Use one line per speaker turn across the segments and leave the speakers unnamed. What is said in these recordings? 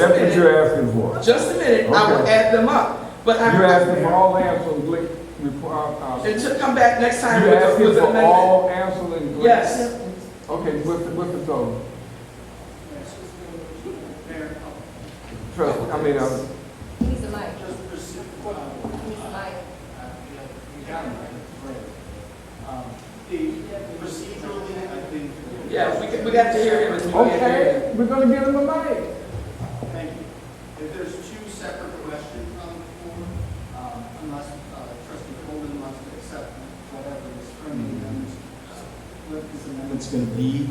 That's what you're asking for.
Just a minute, I will
Okay.
add them up, but I.
You're asking for all answers, and Glick require, uh,
And to come back next time
you're
with,
asking
with an
for
amendment.
all answers and Glick?
Yes,
Okay, what's, the- what's the total? Trust, I mean,
He's
uh,
a light. He's a light.
Procedurally, I think.
yeah, we, could- we got to hear him. as we get here.
okay, we're gonna give him a mic.
Thank you. If there's two separate questions on the floor, um, unless uh, trustee Colvin wants to accept whatever is friendly amendments, uh, what this amendment's going to be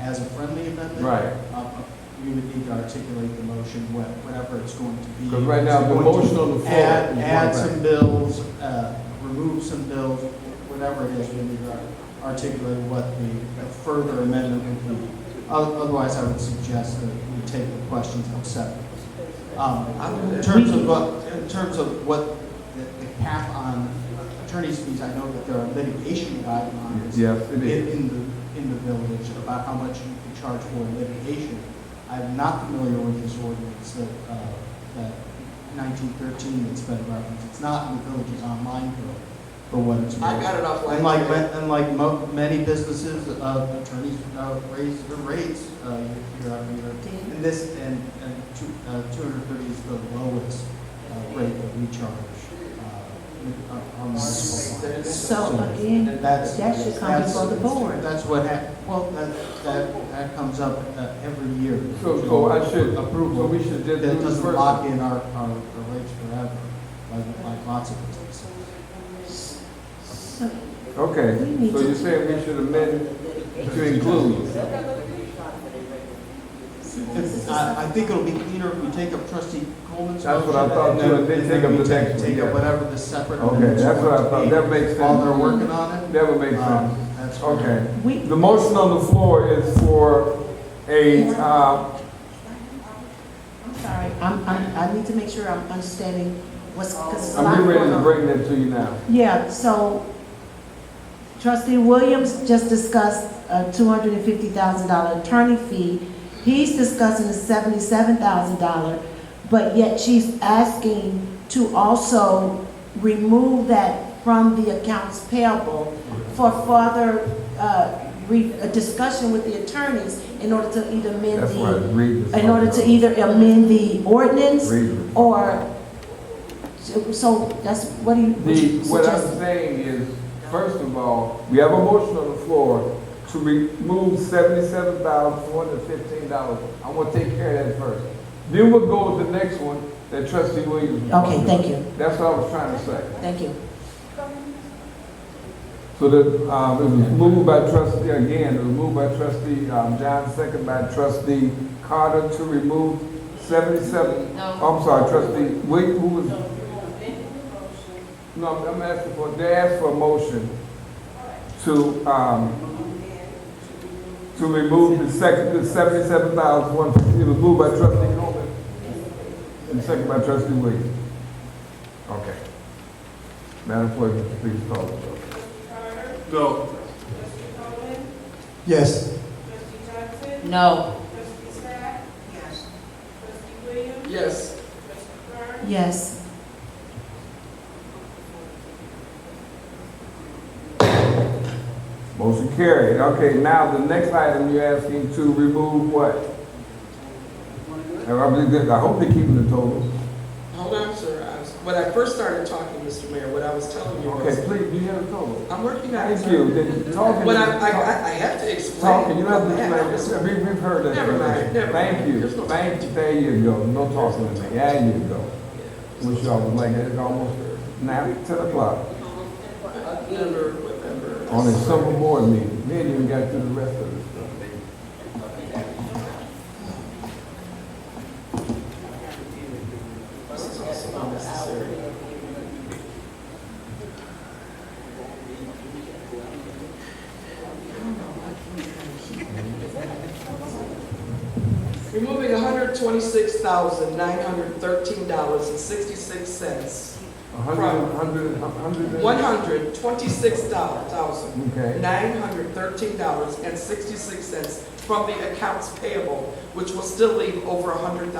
as a friendly amendment.
Right.
um, We would need to articulate the motion, what- whatever it's going to be.
'Cause right now, the
It's going to
motion on the floor is
Add,
one
add
thing.
some bills, uh, remove some bills, whatever it is, we need to articulate what the further amendment would be. O- Otherwise, I would suggest that we take the questions and accept them. Um, In terms of what, in terms of what the the cap on attorney's fees, I know that there are litigation guidelines
Yes, it
in,
is.
in the, in the village about how much you can charge for litigation. I'm not familiar with this ordinance that, uh, that nineteen thirteen that's been referenced. It's not in the village's online bill for what it's worth.
I got it off.
Unlike, ma- unlike mo- many businesses, uh, attorneys, uh, raise their rates, uh, year- year after year. And this, and, and two, uh, two hundred thirty is the lowest, uh, rate that we charge, uh, on- on the.
So again,
Hmm. That's-
that should come
that's-
before the board.
That's what hap, well, that, that, that comes up, uh, every year.
So, so I should approve, so we should just
That
do this
doesn't
first.
lock in our, our, our rates forever, like, like lots of businesses.
So
Okay,
We need
so
to-
you're saying we should amend to include?
If- I, I think it'll be cleaner if we take up trustee Coleman's
That's
motion.
what I thought,
and then-
too, they
and
take
then
up
we
the
take-
next one,
Take up
yeah.
whatever the separate.
Okay,
amendments
that's what I
want to
thought.
be.
That makes
While they're
sense.
working on it.
That would make
um,
sense.
That's.
Okay.
we,
The motion on the floor is for a, uh,
I'm sorry, I'm, I'm, I need to make sure I'm understanding what's,
Oh.
because it's a lot
I'm
going
ready to
on.
bring that to you now.
Yeah, so trustee Williams just discussed a two hundred and fifty thousand dollar attorney fee. He's discussing a seventy-seven thousand dollar, but yet she's asking to also remove that from the accounts payable for further, uh, re, a discussion with the attorneys in order to either amend
That's why I
the,
read this.
in order to either amend the ordinance
Read it.
or, so- so that's, what do you, what
The,
you
what I'm
suggest?
saying is, first of all, we have a motion on the floor to remove seventy-seven thousand, four hundred and fifteen dollars. I want to take care of that first. Then we'll go with the next one that trustee Williams. was
Okay,
talking
thank
about.
you,
That's what I was trying to say.
thank you.
So that, um, it was moved by trustee, again, it was moved by trustee, um, John, second by trustee Carter to remove seventy-seven, oh, I'm sorry, trustee, wait, who was? No, I'm- I'm asking for, they asked for a motion to, um, to remove the second, the seventy-seven thousand one fifty, it was moved by trustee Coleman. And second by trustee Williams. Okay. Madam Clerk, please call the roll.
No.
Yes.
No.
Yes,
Yes,
Motion carried. Okay, now the next item you're asking to remove what? I believe that- I hope they're keeping the total.
hold on, sir, I was, when I first started talking, Mr. Mayor, what I was telling you
Okay,
was,
please, do you have a total?
I'm working on it.
Thank
sir.
you. Then Talking,
But I, I,
talking,
I- I have to explain.
talking, you don't
I have to
have to, we, we've heard that.
Never mind, never
Thank
mind.
you,
There's no-
thank you, there you go, no talking to me, there you go. Wish y'all was like, it's almost now ten o'clock
I never remember.
on a summer board meeting. We ain't even got through the rest of this stuff.
Removing hundred twenty-six thousand, nine hundred thirteen dollars and sixty-six cents.
A hundred, a hundred, a hundred. and-
One hundred twenty-six thousand,
Okay.
nine hundred thirteen dollars and sixty-six cents from the accounts payable, which will still leave over $100,000